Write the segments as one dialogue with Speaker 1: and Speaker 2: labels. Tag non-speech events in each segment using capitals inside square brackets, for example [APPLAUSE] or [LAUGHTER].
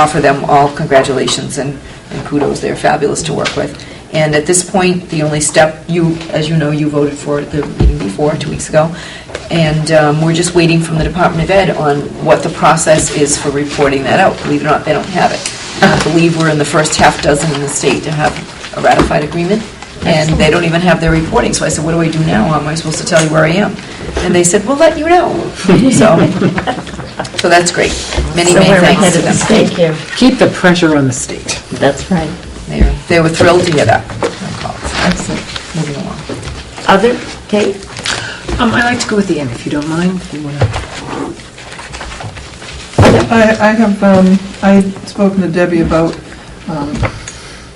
Speaker 1: offer them all congratulations and and kudos, they're fabulous to work with. And at this point, the only step, you, as you know, you voted for it the meeting before, two weeks ago, and um, we're just waiting from the Department of Ed on what the process is for reporting that out. Believe it or not, they don't have it. I believe we're in the first half dozen in the state to have a ratified agreement, and they don't even have their reporting. So I said, what do I do now? How am I supposed to tell you where I am? And they said, we'll let you
Speaker 2: [LAUGHS]
Speaker 1: know. So, so that's great. Many,
Speaker 2: So
Speaker 1: many
Speaker 2: we're
Speaker 1: thanks
Speaker 2: ahead
Speaker 1: to
Speaker 2: of the
Speaker 1: them.
Speaker 2: state here.
Speaker 3: Keep the pressure on the state.
Speaker 2: That's right.
Speaker 1: They were- They were thrilled to hear that. Excellent. Moving along.
Speaker 2: Other, Kate?
Speaker 3: Um, I like to go at the end, if you don't mind. if you wanna-
Speaker 4: I, I have, um, I had spoken to Debbie about, um,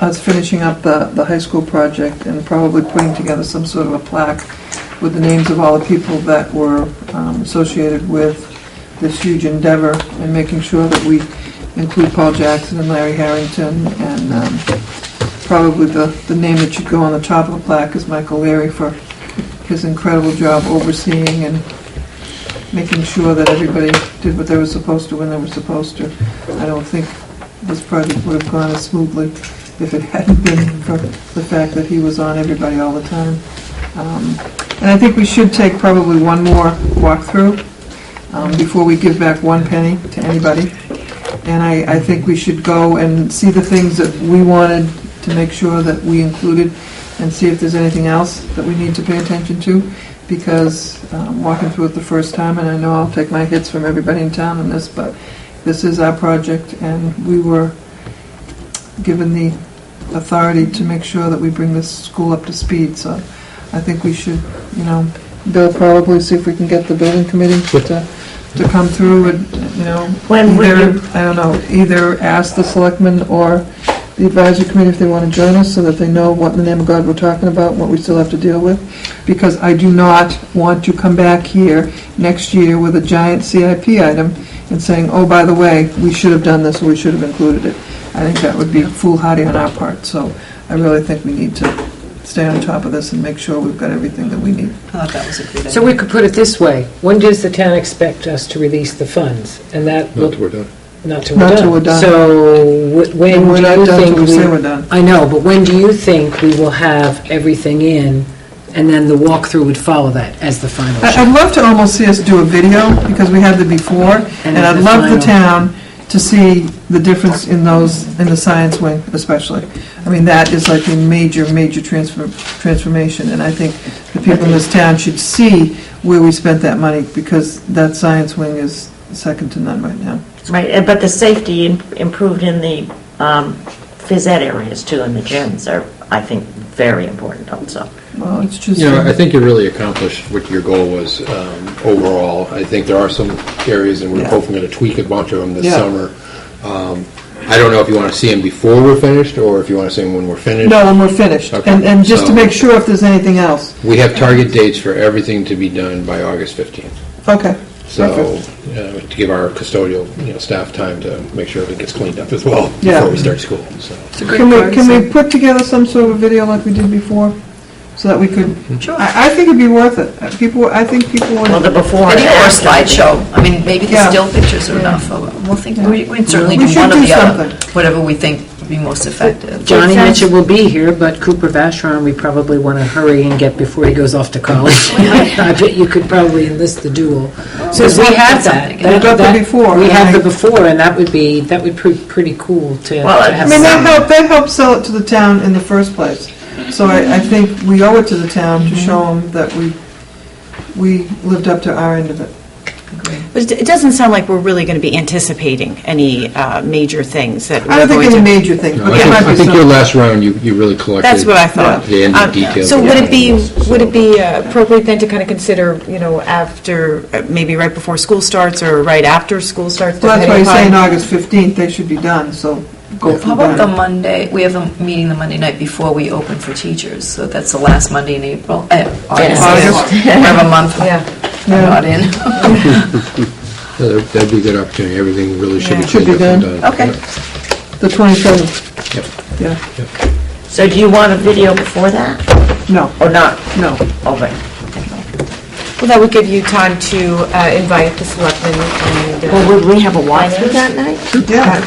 Speaker 4: us finishing up the, the high school project and probably putting together some sort of a plaque with the names of all the people that were, um, associated with this huge endeavor and making sure that we include Paul Jackson and Larry Harrington and, um, probably the, the name that should go on the top of the plaque is Michael Leary for his incredible job overseeing and making sure that everybody did what they were supposed to when they were supposed to. I don't think this project would have gone as smoothly if it hadn't been for the fact that he was on everybody all the time. Um, And I think we should take probably one more walkthrough um, before we give back one penny to anybody. And I, I think we should go and see the things that we wanted to make sure that we included and see if there's anything else that we need to pay attention to because um, walking through it the first time, and I know I'll take my hits from everybody in town on this, but this is our project, and we were given the authority to make sure that we bring this school up to speed, so I think we should, you know, Bill, probably see if we can get the building committee to, to come through and, you know,
Speaker 2: When would
Speaker 4: either,
Speaker 2: you-
Speaker 4: I don't know, either ask the selectmen or the advisory committee if they want to join us, so that they know what in the name of God we're talking about, and what we still have to deal with because I do not want to come back here next year with a giant CIP item and saying, oh, by the way, we should have done this, or we should have included it. I think that would be foolhardy on our part, so I really think we need to stay on top of this and make sure we've got everything that we need.
Speaker 1: I thought that was a good
Speaker 3: So
Speaker 1: idea.
Speaker 3: we could put it this way, when does the town expect us to release the funds? And that,
Speaker 5: Not
Speaker 3: will-
Speaker 5: till we're done.
Speaker 3: not till
Speaker 4: Not
Speaker 3: we're
Speaker 4: till we're
Speaker 3: done.
Speaker 4: done.
Speaker 3: So wh-
Speaker 4: And
Speaker 3: when
Speaker 4: we're
Speaker 3: do
Speaker 4: not
Speaker 3: you
Speaker 4: done till
Speaker 3: think
Speaker 4: we say
Speaker 3: we...
Speaker 4: we're done.
Speaker 3: I know, but when do you think we will have everything in, and then the walkthrough would follow that as the final?
Speaker 4: I- I'd love to almost see us do a video, because we had the before, and I'd
Speaker 3: the
Speaker 4: love the
Speaker 3: final.
Speaker 4: town to see the difference in those, in the science wing especially. I mean, that is like a major, major transfer transformation, and I think the people in this town should see where we spent that money, because that science wing is second to none right now.
Speaker 2: Right, and- but the safety im- improved in the um, phys ed areas too, and the gyms are, I think, very important also.
Speaker 4: Well, it's just,
Speaker 5: You know, I think you really accomplished what your goal was um, overall. I think there are some areas, and we're
Speaker 4: Yeah.
Speaker 5: hopefully going to tweak a bunch of them this
Speaker 4: Yeah.
Speaker 5: summer. Um, I don't know if you want to see them before we're finished, or if you want to see them when we're finished.
Speaker 4: no, and we're finished.
Speaker 5: Okay,
Speaker 4: And, and just to
Speaker 5: so-
Speaker 4: make sure if there's anything else.
Speaker 5: We have target dates for everything to be done by August 15th.
Speaker 4: Okay.
Speaker 5: So,
Speaker 4: Perfect.
Speaker 5: uh, to give our custodial, you know, staff time to make sure everything gets cleaned up as well
Speaker 4: Yeah.
Speaker 5: before we start school, so.
Speaker 4: Can we, can we put together some sort of video like we did before, so that we could? Sure. I, I think it'd be worth it. Uh, People, I think people
Speaker 2: Well, the
Speaker 4: would.
Speaker 2: before and
Speaker 1: Video or
Speaker 2: after.
Speaker 1: slideshow, I mean, maybe the
Speaker 4: Yeah.
Speaker 1: still pictures are enough, Uh, we'll think, we we can certainly
Speaker 4: We
Speaker 1: do
Speaker 4: should
Speaker 1: one or
Speaker 4: do
Speaker 1: the other,
Speaker 4: something.
Speaker 1: whatever we think would be most effective.
Speaker 3: Johnny
Speaker 2: Makes sense.
Speaker 3: Mitchell will be here, but Cooper Vashron, we probably want to hurry and get before he goes off to [LAUGHS] college. I bet you could probably enlist the duel. So if we have that.
Speaker 1: We've
Speaker 3: that-
Speaker 4: got the
Speaker 3: that-
Speaker 4: before,
Speaker 3: We have the
Speaker 4: right.
Speaker 3: before, and that would be, that would be pretty cool to to
Speaker 2: Well, I
Speaker 4: I
Speaker 3: have.
Speaker 4: mean, that
Speaker 3: some-
Speaker 4: helped, that helped sell it to the town in the first place. So I, I think we owe it to the town to show them that we, we lived up to our end of it.
Speaker 6: But it doesn't sound like we're really going to be anticipating any uh, major things that
Speaker 4: I
Speaker 6: we're
Speaker 4: don't think
Speaker 6: going
Speaker 4: any
Speaker 6: to...
Speaker 4: major thing,
Speaker 5: No,
Speaker 4: but
Speaker 5: I
Speaker 4: there
Speaker 5: think,
Speaker 4: might
Speaker 5: I
Speaker 4: be
Speaker 5: think your
Speaker 4: some.
Speaker 5: last round, you, you really collected.
Speaker 6: That's what I thought.
Speaker 5: The end
Speaker 6: Um,
Speaker 5: of detail.
Speaker 6: So would it be, would it be uh, appropriate then to kind of consider, you know, after, uh, maybe right before school starts or right after school starts?
Speaker 4: So that's why you're
Speaker 6: depending
Speaker 4: saying
Speaker 6: upon-
Speaker 4: August 15th, they should be done, so go
Speaker 1: How
Speaker 4: from
Speaker 1: about the
Speaker 4: there.
Speaker 1: Monday, we have a meeting the Monday night before we open for teachers, so that's the last Monday in April, eh, August.
Speaker 4: August.
Speaker 1: We have a month, I'm
Speaker 4: Yeah.
Speaker 1: not in.
Speaker 5: Yeah, That'd be a good opportunity. Everything really should be
Speaker 4: Yeah. Should
Speaker 5: cleaned
Speaker 4: be
Speaker 5: up
Speaker 4: done.
Speaker 5: and done.
Speaker 1: Okay.
Speaker 4: The 27th,
Speaker 5: Yep.
Speaker 4: yeah,
Speaker 2: So do you want a video before that,
Speaker 4: no,
Speaker 2: or not?
Speaker 4: no.
Speaker 2: Over.
Speaker 7: Well, that would give you time to uh, invite the selectmen and... uh,
Speaker 2: Well, would we have a walkthrough that night?
Speaker 4: Yeah.